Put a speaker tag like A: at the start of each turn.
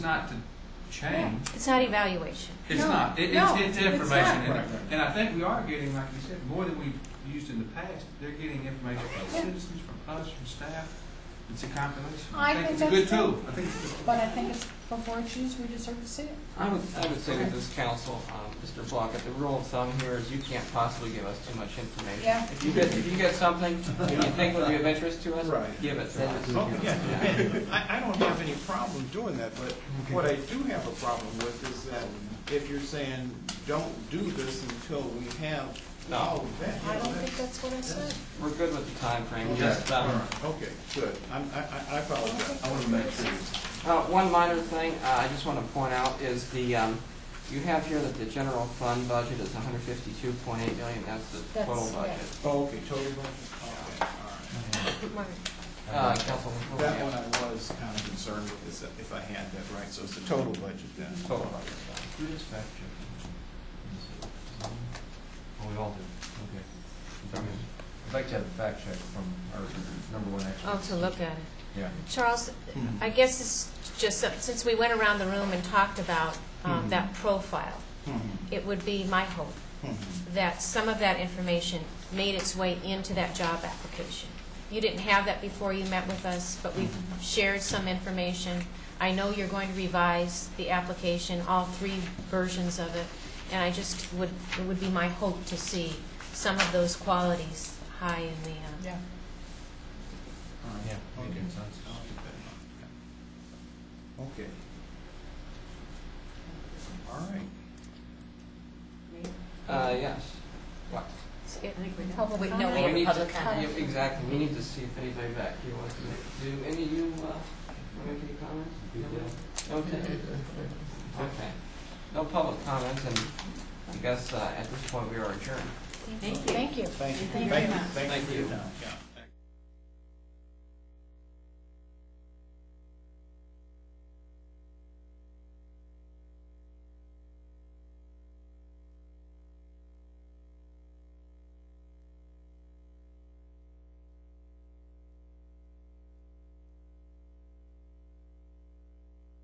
A: not to change.
B: It's not evaluation.
A: It's
C: No,
A: not. It,
C: no,
A: it's, it's
C: it's
A: information.
C: not.
A: And, and I think we are getting, like you said, more than we've used in the past. They're getting information from
C: Yeah.
A: citizens, from us, from staff. It's a compilation.
C: I think
A: it's a good
C: that's right.
A: tool. I think it's a good
C: But I think it's before it's used, we deserve to see it.
D: I would, I would say to this council, um, Mr. Block, if the rule of thumb here is you can't possibly give us too much information.
C: Yeah.
D: If you get, if you get something that you think would be of interest to us,
E: Right.
D: give it to us.
E: Oh, yeah, and I, I don't have any problem doing that, but what I do have a problem with is that if you're saying, don't do this until we have
D: No.
E: all of that.
C: I don't think that's what I said.
D: We're good with the timeframe,
E: Okay.
D: just,
A: All
D: um,
A: right.
E: Okay, good, I'm, I, I- I apologize.
C: I wanna make sure.
D: uh, one minor thing, uh, I just want to point out is the, um, you have here that the general fund budget is hundred fifty-two point eight million, that's the
C: That's-
D: total
C: yeah.
D: budget.
E: Oh, okay, total budget, okay, all
B: Right.
D: Uh,
E: right.
D: Councilman Fuller,
E: That
D: yeah.
E: one I was kind of concerned with, is that if I had that right, so it's the total budget then.
D: Total budget.
F: Who does fact check? Oh, we all do, okay. I'd like to have a fact check from our number one expert.
B: Oh, to look at it.
F: Yeah.
B: Charles, I guess it's just, that since we went around the room and talked about um,
E: Mhm.
B: that profile,
E: Mhm,
B: it would be my hope
E: mhm.
B: that some of that information made its way into that job application. You didn't have that before you met with us, but we've shared some information. I know you're going to revise the application, all three versions of it, and I just would, it would be my hope to see some of those qualities high in the, uh,
C: Yeah.
E: All right.
F: Yeah,
E: Okay.
F: making sense.
E: I'll get that. Okay. All right.
D: Uh, yes. What?
C: Public
B: Wait, no,
C: comment.
B: we have
D: need
B: public
D: to-
B: comment.
D: yeah, Exactly, we need to see if anybody back here wants to make, do any of you, uh, wanna make any comments? Nobody? Okay. Okay. No public comments, and I guess, uh, at this point, we are adjourned.
B: Thank you.
C: Thank you.
E: Thank you.
C: Thank you very much.
E: Thank you.
D: Thank
E: for your
D: you.
E: time. Yeah.